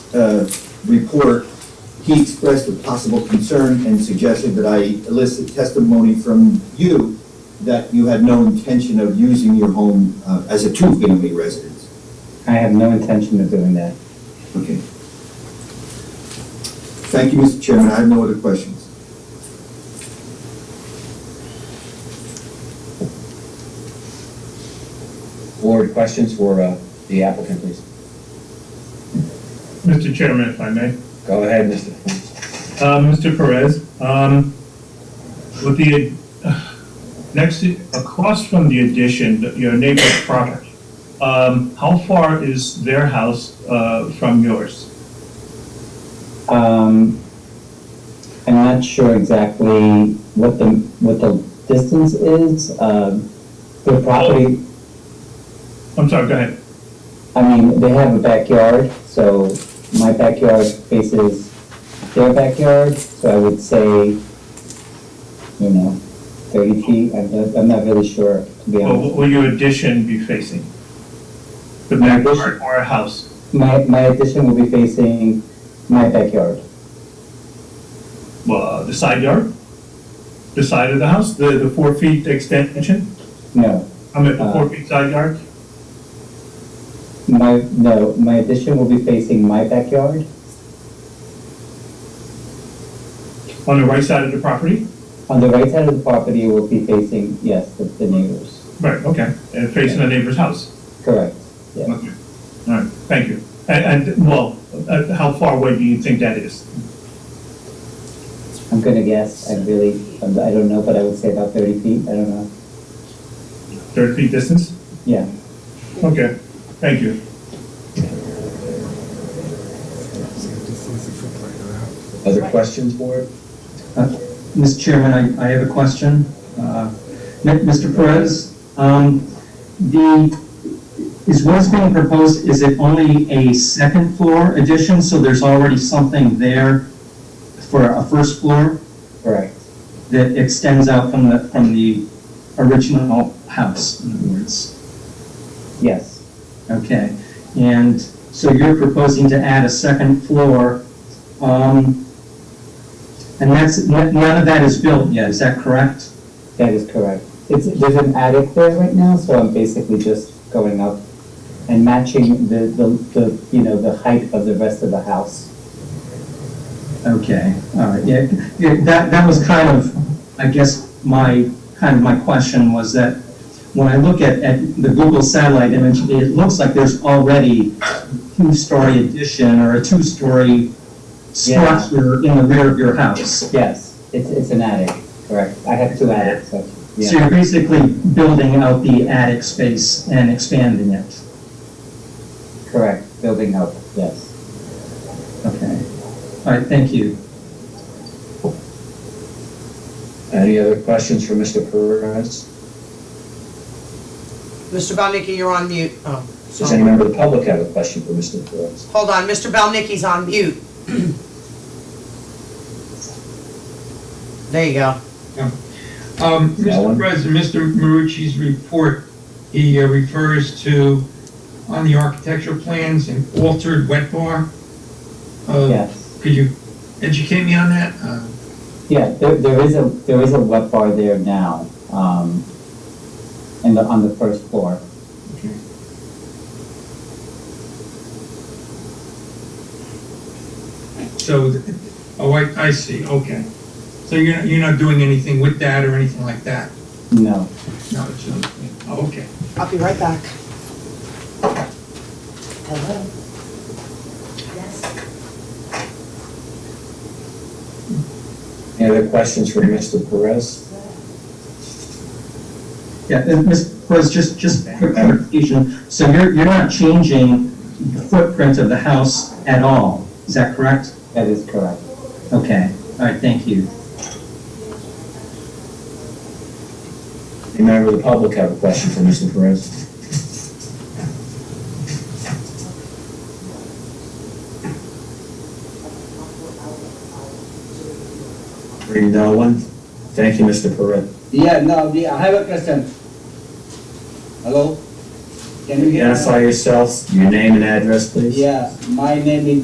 uh, report, he expressed a possible concern and suggested that I elicit testimony from you that you had no intention of using your home uh, as a two-family residence. I have no intention of doing that. Okay. Thank you, Mr. Chairman. I have no other questions. Board, questions for uh, the applicant, please? Mr. Chairman, if I may. Go ahead, Mr. Uh, Mr. Perez, um, with the, uh, next, to- across from the addition, your neighbor's property, um, how far is their house, uh, from yours? Um, I'm not sure exactly what the, what the distance is, um, their property, I'm sorry, go ahead. I mean, they have a backyard, so my backyard faces their backyard, so I would say, you know, thirty feet, I'm, not- I'm not really sure, to be Or honest. what will your addition be facing? The backyard or a house? My, my addition will be facing my backyard. Well, uh, the side yard? The side of the house, the, the four feet extension? No, I mean, the Uh. four feet side yard? my, no, my addition will be facing my backyard On the right side of the property? On the right side of the property, it will be facing, yes, the, the neighbors, Right, okay, and facing the neighbor's house? correct. Yeah. Okay, all right, thank you. And, and, well, uh, how far away do you think that is? I'm gonna guess, I really, I'm- I don't know, but I would say about thirty feet, I don't know, Thirty feet distance? yeah. Okay, thank you. Other questions, board? Mr. Chairman, I, I have a question. Uh, Mi- Mr. Perez, um, the, is what's being proposed, is it only a second floor addition, so there's already something there for a first floor Correct. that extends out from the, from the original house, in other words? Yes, Okay, and so you're proposing to add a second floor, um, and that's, none none of that is built yet, is that correct? that is correct. It's, there's an attic there right now, so I'm basically just going up and matching the, the, the, you know, the height of the rest of the house. Okay, all right, yeah, yeah, that, that was kind of, I guess, my, kind of my question was that when I look at, at the Google satellite image, it looks like there's already a two-story addition or a two-story Yeah. structure in the rear of your house. Yes, it's, it's an attic, correct. I have two attics, actually, So yeah, you're basically building out the attic space and expanding it, correct, building up, yes. okay. All right, thank you. Any other questions for Mr. Perez? Mr. Balnicki, you're on mute. Oh, Does any sorry. member of the public have a question for Mr. Perez? Hold on, Mr. Balnicki's on mute. There you go. Um, Alan? Mr. President, Mr. Marucci's report, he uh, refers to, on the architectural plans, an altered wet bar. Uh, Yes. Could you educate me on that? Uh, Yeah, there, there is a, there is a wet bar there now, um, in the, on the first floor. So, oh, I, I see, okay. So you're, not- you're not doing anything with that or anything like that? No, No, it's, uh, oh, okay. I'll be right back. Hello? Any other questions for Mr. Perez? Yeah, and Ms. Perez, just, just quick clarification, so you're, you're not changing the footprint of the house at all, is that correct? that is correct. Okay, all right, thank you. Any member of the public have a question for Mr. Perez? Hearing no one, thank you, Mr. Perez. Yeah, no, the- I have a question. Hello? Can you hear? me? Identify yourself, your name and address, please. Yeah, my name is